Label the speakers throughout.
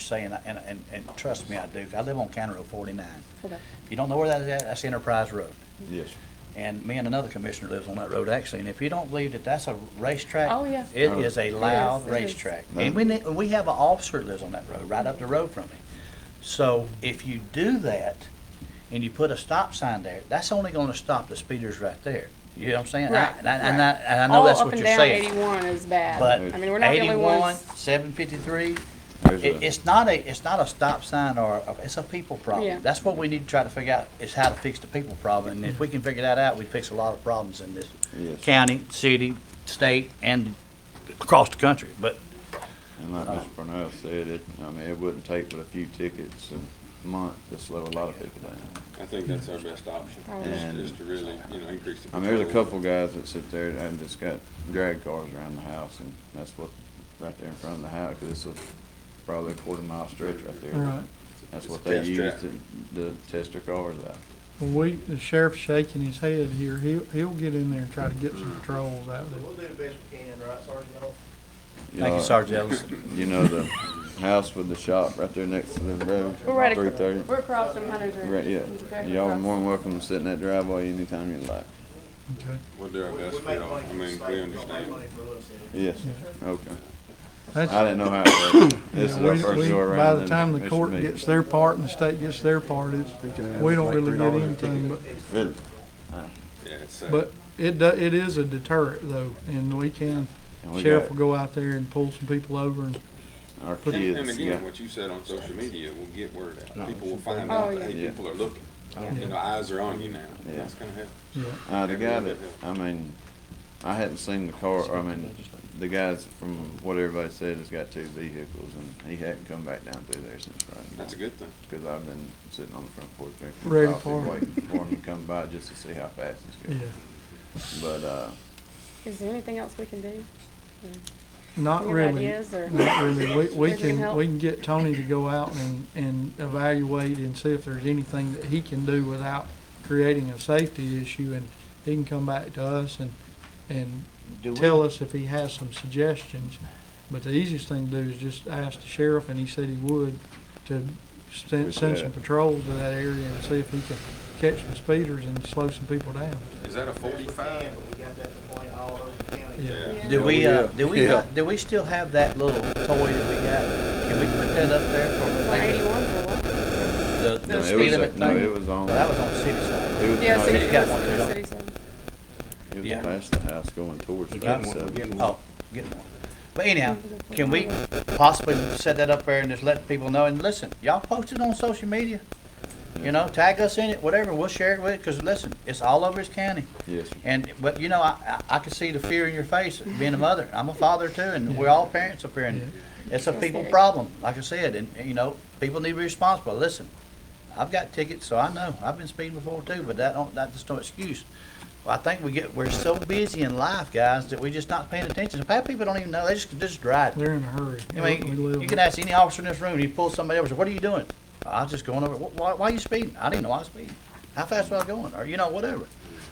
Speaker 1: saying, and, and, and trust me, I do, 'cause I live on County Road forty-nine.
Speaker 2: Okay.
Speaker 1: If you don't know where that is at, that's Enterprise Road.
Speaker 3: Yes.
Speaker 1: And me and another commissioner lives on that road, actually, and if you don't believe that that's a racetrack.
Speaker 2: Oh, yeah.
Speaker 1: It is a loud
Speaker 2: it is.
Speaker 1: racetrack. And we, ne- we have an officer that lives on that road, right up the road from me. So if you do that and you put a stop sign there, that's only gonna stop the speeders right there. You know what I'm saying? I-
Speaker 2: Right,
Speaker 1: And I, and I,
Speaker 2: right.
Speaker 1: and I know that's what you're saying.
Speaker 2: All up and down 81 is bad.
Speaker 1: But
Speaker 2: I mean, we're not the only
Speaker 1: eighty-one,
Speaker 2: ones.
Speaker 1: seven fifty-three,
Speaker 3: There's
Speaker 1: it,
Speaker 3: a-
Speaker 1: it's not a, it's not a stop sign or, a- it's a people
Speaker 2: Yeah.
Speaker 1: problem. That's what we need to try to figure out, is how to fix the people problem. And if we can figure that out, we fix a lot of problems in this
Speaker 3: Yes.
Speaker 1: county, city, state, and across the country. But
Speaker 3: And like
Speaker 1: Uh,
Speaker 3: Mr. Purnell said, it, I mean, it wouldn't take but a few tickets a month to slow a lot of people down.
Speaker 4: I think that's our best option,
Speaker 3: And-
Speaker 4: is, is to really, you know, increase the.
Speaker 3: I mean, there's a
Speaker 4: patrol.
Speaker 3: couple guys that sit there and just got drag cars around the house and that's what, right there in front of the house, cause it's a, probably a quarter mile stretch right there.
Speaker 5: Right.
Speaker 3: That's
Speaker 4: It's
Speaker 3: what
Speaker 4: a
Speaker 3: they
Speaker 4: test
Speaker 3: use
Speaker 4: track.
Speaker 3: to, to test their cars out.
Speaker 5: Well, we, the sheriff's shaking his head here. He'll, he'll get in there and try to get some patrols out there.
Speaker 6: We'll do the best we can, right, Sergeant? Oak?
Speaker 1: thank
Speaker 3: Uh,
Speaker 1: you, Sergeant Ellison.
Speaker 3: You know, the house with the shop right there next to the road,
Speaker 2: We're right
Speaker 3: three
Speaker 2: across,
Speaker 3: thirty.
Speaker 2: we're across from Hunter's Ridge.
Speaker 3: Right, yeah.
Speaker 2: Exactly
Speaker 3: Y'all are
Speaker 2: across.
Speaker 3: more than welcome to sit in that driveway anytime you like.
Speaker 5: Okay.
Speaker 4: We'll do our
Speaker 6: We-
Speaker 4: best
Speaker 6: we
Speaker 4: for
Speaker 6: make
Speaker 4: y'all, I
Speaker 6: money for
Speaker 4: mean,
Speaker 6: the
Speaker 4: we
Speaker 6: state, we don't make
Speaker 4: understand.
Speaker 6: money for little cities.
Speaker 3: Yes, okay. I
Speaker 5: That's,
Speaker 3: didn't know how it worked. This is
Speaker 5: yeah,
Speaker 3: our
Speaker 5: we,
Speaker 3: first
Speaker 5: we,
Speaker 3: go around.
Speaker 5: by the
Speaker 3: and
Speaker 5: time the
Speaker 3: it's
Speaker 5: court
Speaker 3: me.
Speaker 5: gets their part and the state gets their part, it's, we don't really get anything, but,
Speaker 3: Really?
Speaker 4: Yeah, it's, uh,
Speaker 5: but it do, it is a deterrent though, and we can,
Speaker 3: And we
Speaker 5: sheriff
Speaker 3: got-
Speaker 5: will go out there and pull some people over and,
Speaker 3: Our
Speaker 4: and- and
Speaker 3: kids, yeah.
Speaker 4: again, what you said on social media will get word out, people will find
Speaker 2: Oh,
Speaker 4: out,
Speaker 2: yeah.
Speaker 4: that, hey,
Speaker 3: Yeah.
Speaker 4: people are looking, you know, eyes are on you now,
Speaker 3: Oh, Yeah.
Speaker 4: that's gonna help.
Speaker 5: yeah.
Speaker 3: Uh, the guy that, I mean, I hadn't seen the car, I mean, the guys from what everybody said has got two vehicles and he hadn't come back down through there since Friday. night.
Speaker 4: That's a good thing.
Speaker 3: Cause I've been sitting on the front porch drinking
Speaker 5: Ready
Speaker 3: coffee,
Speaker 5: for him.
Speaker 3: waiting for him to come by just to see how fast he's
Speaker 5: Yeah.
Speaker 3: going. But, uh,
Speaker 2: Is there anything else we can do?
Speaker 5: Not
Speaker 2: Any
Speaker 5: really.
Speaker 2: ideas or-
Speaker 5: Not really. We, we
Speaker 2: Guys need
Speaker 5: can,
Speaker 2: help?
Speaker 5: we can get Tony to go out and, and evaluate and see if there's anything that he can do without creating a safety issue and he can come back to us and, and
Speaker 1: Do we-
Speaker 5: tell us if he has some suggestions. But the easiest thing to do is just ask the sheriff and he said he would to send, send some
Speaker 3: Appreciate it.
Speaker 5: patrols to that area and see if he can catch some speeders and slow some people down.
Speaker 4: Is that a
Speaker 6: We
Speaker 4: forty-five?
Speaker 6: can, but we got that to point all over the county.
Speaker 5: Yeah.
Speaker 1: Do we, uh,
Speaker 3: Yeah.
Speaker 1: do we,
Speaker 3: Yeah.
Speaker 1: not- do we still have that little toy that we got? Can we put that up there for
Speaker 2: Well,
Speaker 1: maybe
Speaker 2: 81 for what?
Speaker 1: the,
Speaker 3: no,
Speaker 1: the
Speaker 3: it
Speaker 1: speed
Speaker 3: was,
Speaker 1: limit
Speaker 3: a- no, it
Speaker 1: thing?
Speaker 3: was on,
Speaker 1: That
Speaker 3: it
Speaker 1: was on the city side.
Speaker 3: was,
Speaker 2: Yeah,
Speaker 3: no,
Speaker 2: city,
Speaker 1: you
Speaker 3: it
Speaker 1: got one, you
Speaker 2: city,
Speaker 1: know.
Speaker 2: city side.
Speaker 3: it
Speaker 1: yeah.
Speaker 3: was past the house going towards
Speaker 1: Oh,
Speaker 3: thirty-seven.
Speaker 1: getting one. But anyhow, can we possibly set that up there and just let people know, and listen, y'all post it on social media? You know, tag us in it, whatever, we'll share it with it, cause listen, it's all over this county.
Speaker 3: Yes, sir.
Speaker 1: And, but you know, I, I, I can see the fear in your face, being a mother, I'm a father too, and we're all parents up here, and it's a people problem, like I said, and, and, you know, people need to be responsible, listen. I've got tickets, so I know, I've been speeding before too, but that don't, that's just no excuse. Well, I think we get, we're so busy in life, guys, that we're just not paying attention, half people don't even know, they just, just drive.
Speaker 5: They're in a hurry.
Speaker 1: I
Speaker 5: We live-
Speaker 1: mean, you can ask any officer in this room, you pull somebody over, say, what are you doing? I was just going over, "Wh- why, why are you speeding? I didn't know I was speeding. How fast was I going? Or, you know, whatever.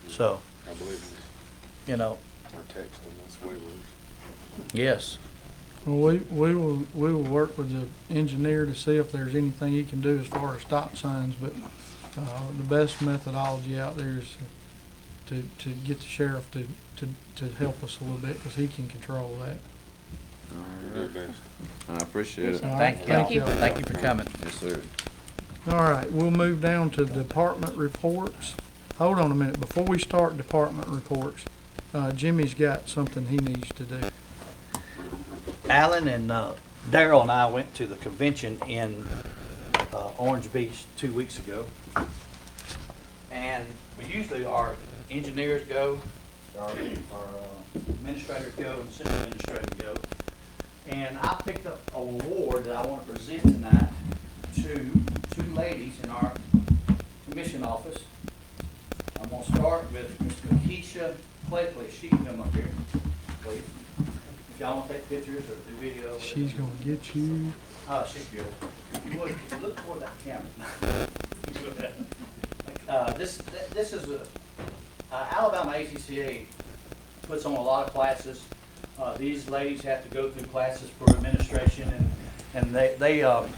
Speaker 1: So,
Speaker 4: I believe it.
Speaker 1: you know,
Speaker 4: Or text them, that's way worse.
Speaker 1: yes.
Speaker 5: Well, we, we will, we will work with the engineer to see if there's anything he can do as far as stop signs, but, uh, the best methodology out there is to, to get the sheriff to, to, to help us a little bit, cause he can control that.
Speaker 4: We'll do our best.
Speaker 3: I appreciate it.
Speaker 5: All right,
Speaker 1: Thank
Speaker 5: thank
Speaker 1: you.
Speaker 5: you.
Speaker 1: Thank you for coming.
Speaker 3: Yes, sir.
Speaker 5: All right, we'll move down to department reports. Hold on a minute, before we start department reports, uh, Jimmy's got something he needs to do.
Speaker 1: Alan and uh, Daryl and I went to the convention in uh, Orange Beach two weeks ago. And we usually our engineers go, our our, uh, administrators go, and city administrators go. And I picked up an award that I want to present tonight to two ladies in our commission office. I'm gonna start with Ms. Keisha Claypley. She can come up here, please. If y'all wanna take pictures or do video. whatever.
Speaker 5: She's gonna get you.
Speaker 1: Oh, she's beautiful. You would- if you Look toward that camera. Uh, this, th- this is a, uh, Alabama ACCA puts on a lot of classes. Uh, these ladies have to go through classes for administration and, and they, they, um,